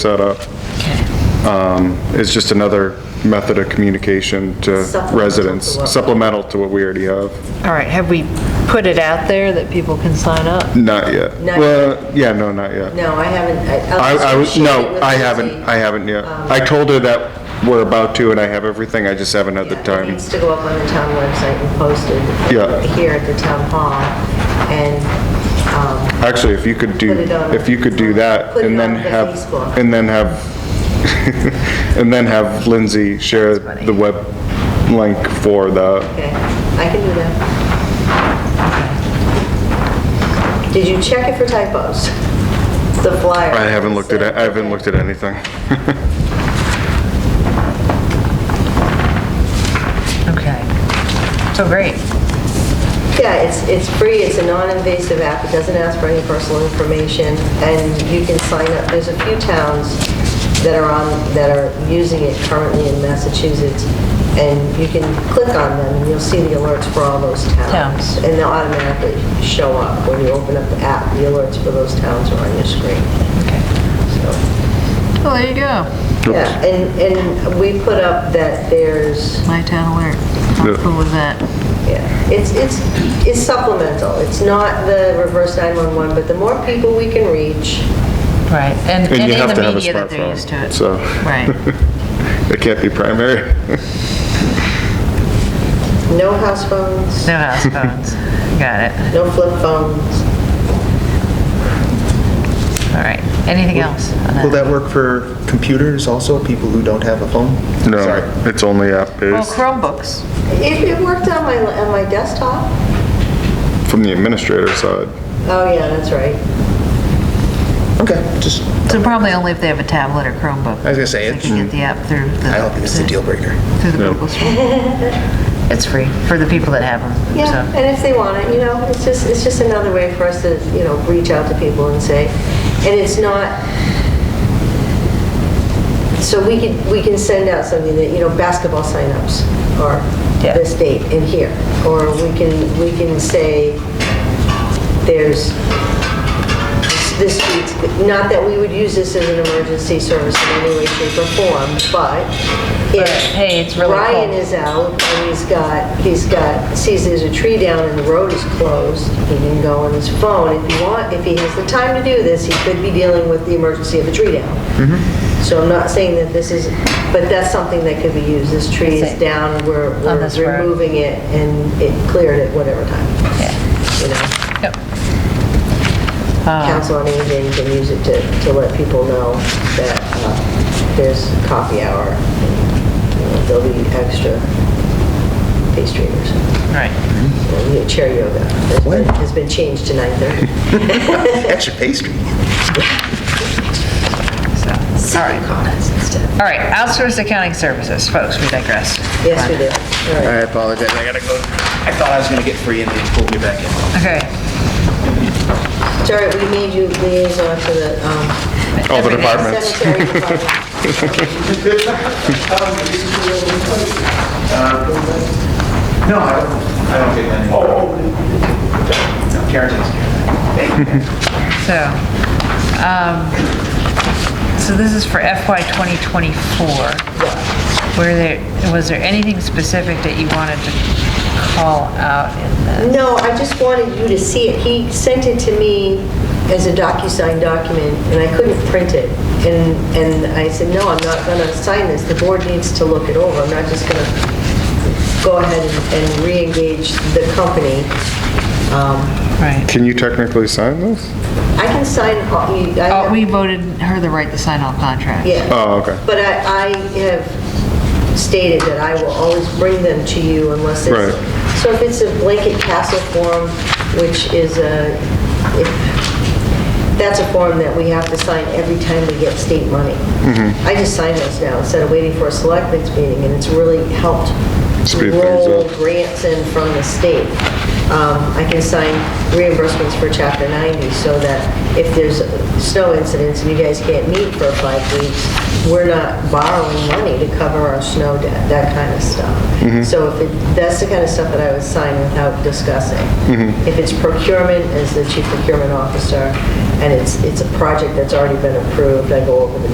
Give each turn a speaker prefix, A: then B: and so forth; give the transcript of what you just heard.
A: set up. Um, It's just another method of communication to
B: Supplemental to
A: residents,
B: what-
A: supplemental to what we already have.
C: All right, have we put it out there that people can sign up?
A: Not yet.
B: Not
A: Well, yeah, no, not yet.
B: No, I haven't.
A: I, I was,
B: shared it
A: no,
B: with
A: I
B: Lindsay.
A: haven't, I haven't yet.
B: Um,
A: I told her that we're about to and I have everything, I just haven't had the
B: Yeah, It
A: time.
B: needs to go up on the town website and posted
A: Yeah.
B: here at the town hall and um,
A: Actually, if you could do,
B: Put it on-
A: if you could do that
B: Put it
A: and then
B: on the
A: have,
B: Facebook.
A: and then have, and then have Lindsay share the web link for the,
B: okay, I can do that. Did you check it for typos? The flyer?
A: I haven't looked at, it. I haven't looked at anything.
C: Okay. So great.
B: Yeah, it's, it's free, it's a non-invasive app, it doesn't ask for any personal information, and you can sign up, there's a few towns that are on, that are using it currently in Massachusetts, and you can click on them, and you'll see the alerts for all those towns.
C: Towns.
B: And they'll automatically show up when you open up the app, the alerts for those towns are on your screen.
C: Okay.
B: So,
C: Well, Oh, there you go.
B: Yeah, and, and we put up that there's,
C: My town alert. How
A: Yeah.
C: cool was that?
B: Yeah, it's, it's, it's supplemental. It's not the reverse 911, but the more people we can reach,
C: Right, and
A: And
C: and
A: you
C: in
A: have to
C: the
A: have a
C: media that they're used to
A: smartphone,
C: it.
A: so.
C: Right.
A: It can't be primary.
B: no house phones,
C: No house phones. Got it.
B: no flip phones.
C: All right. Anything else on
D: Will
C: that?
D: that work for computers also, people who don't have a phone? Sorry.
A: No, it's only
C: Well,
A: app-based
C: Chromebooks.
B: It, it worked on my, on my desktop.
A: from the administrator side.
B: Oh, yeah, that's right.
D: Okay, just,
C: So probably only if they have a tablet or Chromebook.
D: I was gonna say,
C: They can get
D: it's-
C: the app through the.
D: I don't think it's a deal breaker.
C: Through the
A: No.
C: Google Store. It's free for the people that have them.
B: Yeah,
C: so.
B: and if they want it, you know, it's just, it's just another way for us to, you know, reach out to people and say, and it's not, so we could, we can send out something that, you know, basketball signups or
C: Yeah.
B: this date in here. Or we can, we can say, there's this week's, not that we would use this as an emergency service in any way, shape, or form, but if
C: hey, it's really
B: Ryan
C: cold.
B: is out and he's got, he's got, sees there's a tree down and the road is closed, he can go on his phone. If he want, if he has the time to do this, he could be dealing with the emergency of a tree down. So I'm not saying that this is, but that's something that could be used. This tree
C: That's
B: is
C: it.
B: down, we're
C: On
B: we're
C: this road.
B: removing it and it cleared at whatever time.
C: Yeah.
B: You know?
C: Yep. Uh,
B: Council on Aging can use it to, to let people know that uh, there's coffee hour. You know, There'll be extra pastry or something.
C: All right.
B: You know, Chair yoga has been-
D: What?
B: has been changed to 9:30.
D: Extra pastry.
C: So, all right. All right, outsourced accounting services, folks, we digress.
B: Yes, we do. All right.
D: I apologize, I gotta go. I thought I was gonna get free and they pulled me back in.
C: Okay.
A: Oh,
B: It's all right, we made you liaison to the um,
A: All the
C: Everything.
A: departments.
B: cemetery department.
D: No, I don't, I don't get any. Oh. Karen takes care of that.
C: So, um, so this is for FY 2024. Were there, was there anything specific that you wanted to call out in the,
B: No, I just wanted you to see it. He sent it to me as a DocuSign document, and I couldn't print it. And, and I said, no, I'm not gonna sign this. The board needs to look it over. I'm not just gonna go ahead and- and re-engage the company. Um,
C: right?
A: Can you technically sign this?
B: I can sign, all- you- I
C: Oh,
B: have-
C: we voted her the right to sign all contracts.
B: yeah.
A: Oh, okay.
B: But I, I have stated that I will always bring them to you unless it's...
A: Right.
B: So if it's a blanket castle form, which is a, if- that's a form that we have to sign every time we get state money.
A: Mm-hmm.
B: I just sign those now instead of waiting for a selectmen's meeting, and it's really helped
A: Speed things
B: roll
A: up.
B: grants in from the state. Um, I can sign reimbursements for Chapter 90 so that if there's snow incidents and you guys can't meet for five weeks, we're not borrowing money to cover our snow debt, that kind of
A: Mm-hmm.
B: stuff. So if it, that's the kind of stuff that I would sign without discussing.
A: Mm-hmm.
B: If it's procurement, as the chief procurement officer, and it's, it's a project that's already been approved, I go over the